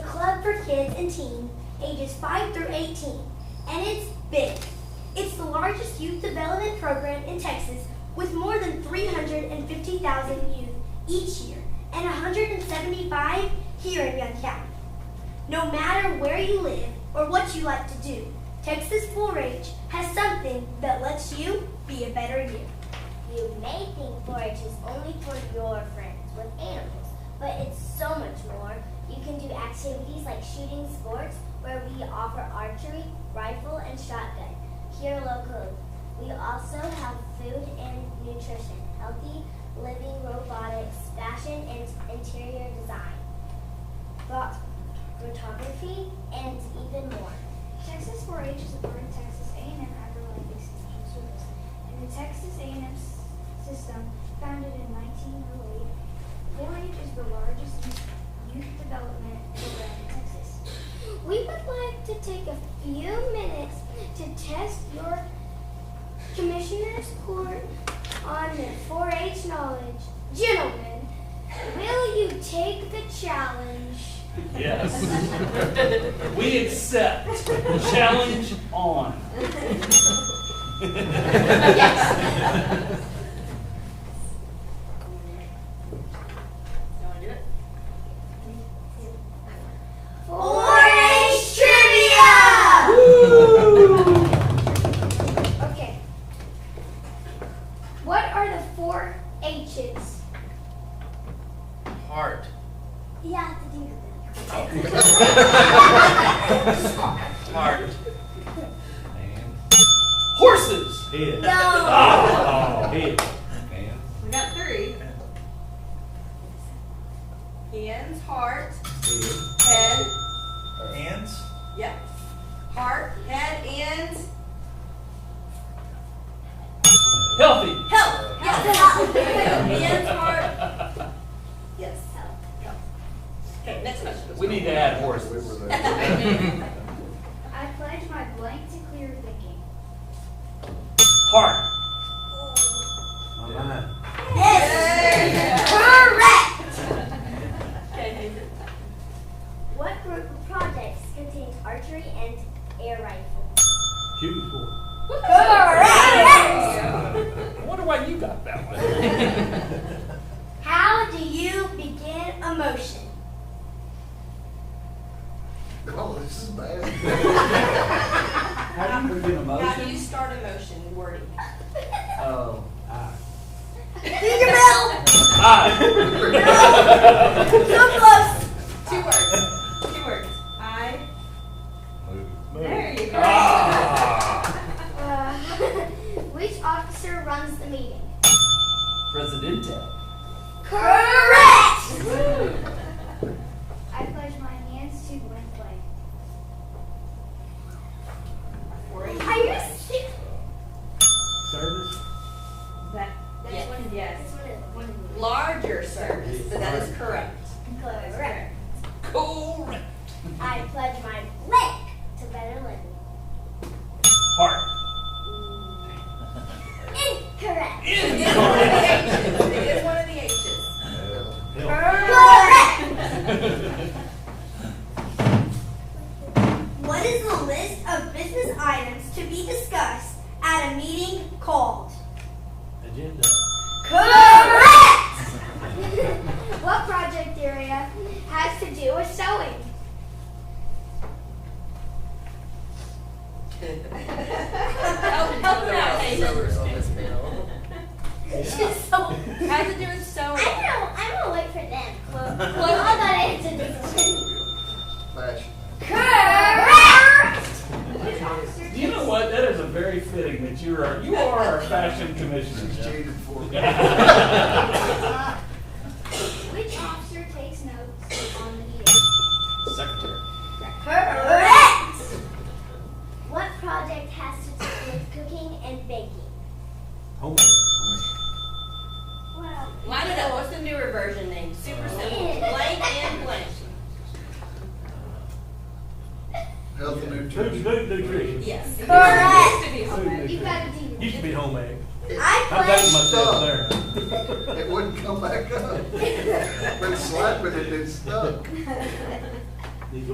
kids and teens ages 5 through 18, and it's big. It's the largest youth development program in Texas with more than 350,000 youth each year and 175 here in Young County. No matter where you live or what you like to do, Texas 4 H has something that lets you be a better you. You may think 4-H is only for your friends with animals, but it's so much more. You can do activities like shooting sports, where we offer archery, rifle, and shotgun here locally. We also have food and nutrition, healthy living, robotics, fashion, and interior design, pho- photography, and even more. Texas 4-H is a part of Texas A&M Agri-Life Extension Service, and the Texas A&M s- system, founded in 1908. 4-H is the largest youth youth development program in Texas. We would like to take a few minutes to test your commissioner's court on their 4-H knowledge. Gentlemen, will you take the challenge? Yes. we accept. Challenge on. You want to do it? 4-H trivia! Okay. What are the four H's? Heart. You have to do that. Heart. Horses. Head. No. Oh, Ah, head. We got three. Hands, heart, head. Hands? Yep. Heart, head, ends. Healthy. Help. Yes. Hands, heart. Yes. Help. Help. Okay. Next question. We need to add horses. I pledge my blank to clear thinking. Heart. Okay. What group of projects contains archery and air rifle? Shooting sport. I wonder why you got that one. How do you begin a motion? Oh, this is bad. How do you begin a How do you motion? start a motion wording? Oh, I, Ah. I. Two words. Two words. I. There you go. Ah. Uh, which officer runs the meeting? Presidente. Correct! I pledge my hands to blank blank. Are you serious? service? That, that's Yes. one yes. One of them. Larger service, but that is correct. Correct. Correct. I pledge my leg to better living. Heart. Incorrect. It is one of the H's. It is one of the H's. Correct. What is the list of business items to be discussed at a meeting called? Agenda. Correct. What project area has to do with sewing? Help, help me out, Nathan. She's so. Has to do with sewing. I don't know. I'm gonna wait for them. Well, well I gotta answer this one. Fashion. Correct. Which officer You know what? That is a very fitting that you are you are our fashion commissioner. Jeff. Cheated for me. takes, which officer takes notes on the meeting? Secretary. Correct. What project has to do with cooking and baking? Home. Wow. Line it up. What's the newer version name? Super simple. Blank and blank. Health and Food, nutrition. food, nutrition. Yes. Correct. Used to be Food homemade. You nutrition. gotta do. Used to be homemade. I I'm pledge. dating myself there. It wouldn't come back up. Been slapping it, it stuck.